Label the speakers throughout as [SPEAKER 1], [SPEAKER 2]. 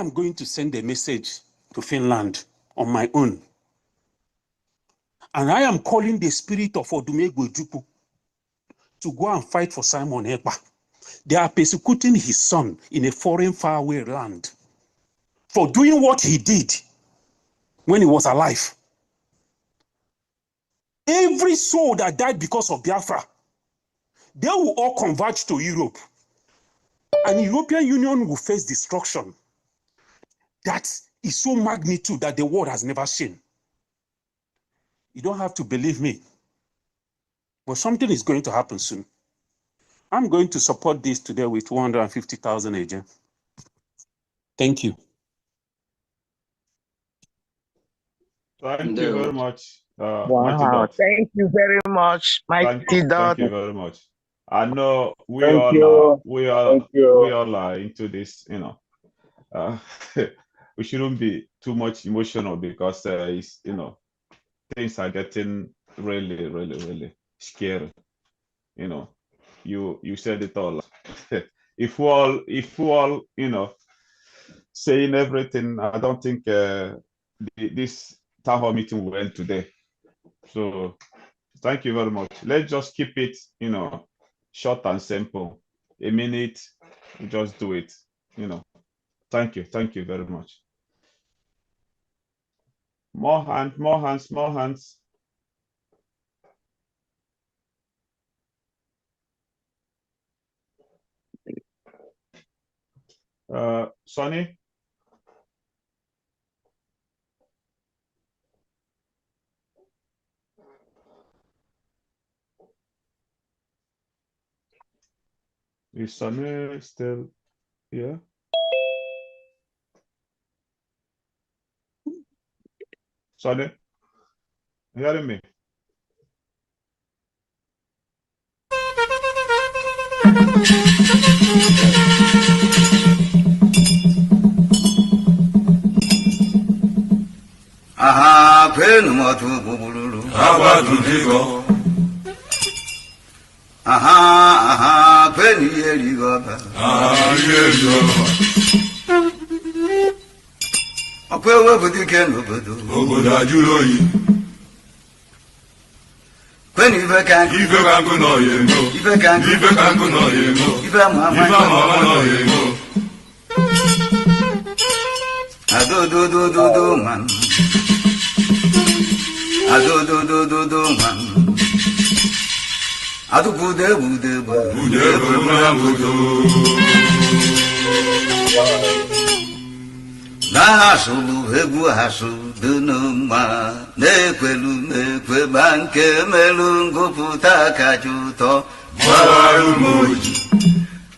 [SPEAKER 1] I'm going to send a message to Finland on my own. And I am calling the spirit of Odumegwu Ojukwu to go and fight for Simon Ekpa. They are persecuting his son in a foreign, faraway land for doing what he did when he was alive. Every soul that died because of Biafra, they will all converge to Europe. And European Union will face destruction that is so magnitude that the world has never seen. You don't have to believe me, but something is going to happen soon. I'm going to support this today with 250,000 agents. Thank you.
[SPEAKER 2] Thank you
[SPEAKER 3] Indeed.
[SPEAKER 2] very much. Uh, Mighty
[SPEAKER 4] Wow,
[SPEAKER 2] Dog.
[SPEAKER 4] thank you very much,
[SPEAKER 2] Thank,
[SPEAKER 4] Mighty
[SPEAKER 2] thank
[SPEAKER 4] Dog.
[SPEAKER 2] you very much. I know we
[SPEAKER 5] Thank
[SPEAKER 2] all
[SPEAKER 5] you.
[SPEAKER 2] are, we all,
[SPEAKER 5] Thank
[SPEAKER 2] we
[SPEAKER 5] you.
[SPEAKER 2] all are into this, you know. Uh, we shouldn't be too much emotional because uh, it's, you know, things are getting really, really, really scary. You know, you you said it all. if we all, if we all, you know, saying everything, I don't think uh, the, this town hall meeting will end today. So thank you very much. Let's just keep it, you know, short and simple. A minute, we just do it. You know, thank you, thank you very much. More hand, more hands, more hands. Uh, Sonny, is Sonny still here? Sonny, you hearing me?
[SPEAKER 3] Aha, penu matu bubululu.
[SPEAKER 6] Abadudigo,
[SPEAKER 3] Aha, aha, penu yeri goba.
[SPEAKER 6] Arielio,
[SPEAKER 3] Okwe webudu ken obodo.
[SPEAKER 6] Obodajuloyi,
[SPEAKER 3] Penu ife kanku,
[SPEAKER 6] Ife kangu no yemo,
[SPEAKER 3] ife kanku,
[SPEAKER 6] Ife kangu no yemo,
[SPEAKER 3] ife
[SPEAKER 6] Ife mama no
[SPEAKER 3] mama.
[SPEAKER 6] yemo,
[SPEAKER 3] Ado do do do do man. Ado do do do do man. Ado bude bude bude.
[SPEAKER 6] Ude bumuna budo,
[SPEAKER 3] Na hasulu egwu hasu dunu mma. Na-ekwelu na-ekwe ma nke melu ngụpụta kacha ụtọ.
[SPEAKER 6] Bawaru moji,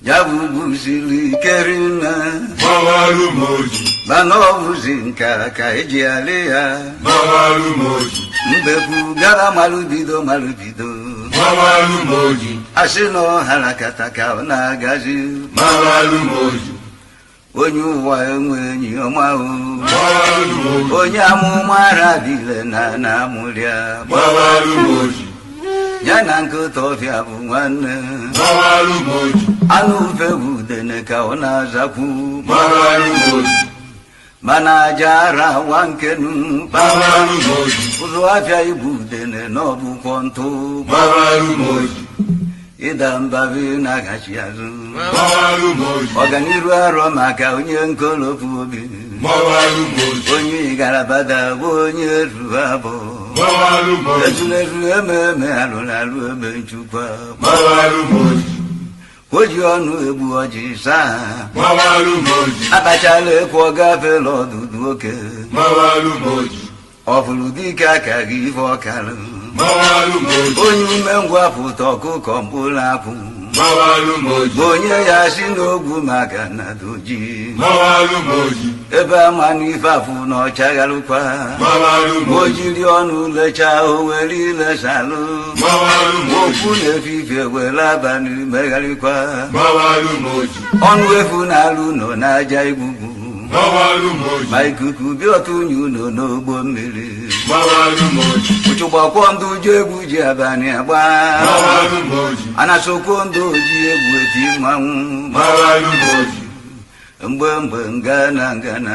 [SPEAKER 3] Ya bụ buziri ike rinne.
[SPEAKER 6] Bawaru moji,
[SPEAKER 3] Mana ọ bụzi nka ka eji alị ya.
[SPEAKER 6] Bawaru moji,
[SPEAKER 3] Mbekwu gara malụbido malụbido.
[SPEAKER 6] Bawaru moji,
[SPEAKER 3] Asị na ọ harakata ka ọ na-agazi.
[SPEAKER 6] Bawaru moji,
[SPEAKER 3] onye ụwa enwe enyi ọma o
[SPEAKER 6] Bawaru moji,
[SPEAKER 3] onye amụma arabile na na amụrịa
[SPEAKER 6] Bawaru moji,
[SPEAKER 3] ya na nkịta ọfịa bụ nwanne
[SPEAKER 6] Bawaru moji,
[SPEAKER 3] anụ ufe bụ udene ka ọ na-azakwu
[SPEAKER 6] Bawaru moji,
[SPEAKER 3] mana aja ara awa nkenu
[SPEAKER 6] Bawaru moji,
[SPEAKER 3] ụzụ afịa ibu udene na ọbụkwọ ntụ
[SPEAKER 6] Bawaru moji,
[SPEAKER 3] ịda mbabi na-agachi azụ
[SPEAKER 6] Bawaru moji,
[SPEAKER 3] ọganiru arọ maka onye nkolopu obi
[SPEAKER 6] Bawaru moji,
[SPEAKER 3] onye igarabada bụ onye ruru abụọ
[SPEAKER 6] Bawaru moji.
[SPEAKER 3] ezulezu eme eme alụrụ alụ eme njikwa
[SPEAKER 6] Bawaru moji,
[SPEAKER 3] o ji ọnụ egbu ọjị saa
[SPEAKER 6] Bawaru moji,
[SPEAKER 3] akpachala ekwu ọ gafela ọdụdụ oke
[SPEAKER 6] Bawaru moji,
[SPEAKER 3] ọ fụrụ dike aka gị ife ọkarụ
[SPEAKER 6] Bawaru moji,
[SPEAKER 3] onye umengwụ apụta ọkụkọ mkpụrụ apụ
[SPEAKER 6] Bawaru moji,
[SPEAKER 3] bụ onye ya si n'ogwu maka na doji
[SPEAKER 6] Bawaru moji,
[SPEAKER 3] ebe amanụ ife afụ na ọchagharụkwa
[SPEAKER 6] Bawaru
[SPEAKER 3] o
[SPEAKER 6] moji,
[SPEAKER 3] jiri ọnụ lechaa o were ilesalụ
[SPEAKER 6] Bawaru
[SPEAKER 3] okwu
[SPEAKER 6] moji,
[SPEAKER 3] na-efife were abalị megharịkwa
[SPEAKER 6] Bawaru moji,
[SPEAKER 3] ọnụ efu na-alụ nọ n'aja igbugbu
[SPEAKER 6] Bawaru moji,
[SPEAKER 3] ma ikuku bịa ọtụ unyi ụlọ n'ogbo mmiri
[SPEAKER 6] Bawaru moji,
[SPEAKER 3] ụchụgbakwọ ndụ ji egwu ji abalị agba
[SPEAKER 6] Bawaru moji,
[SPEAKER 3] anasokwo ndụ oji egwu eti mmanwụ
[SPEAKER 6] Bawaru moji,
[SPEAKER 3] mgbe mgbe ngana ngana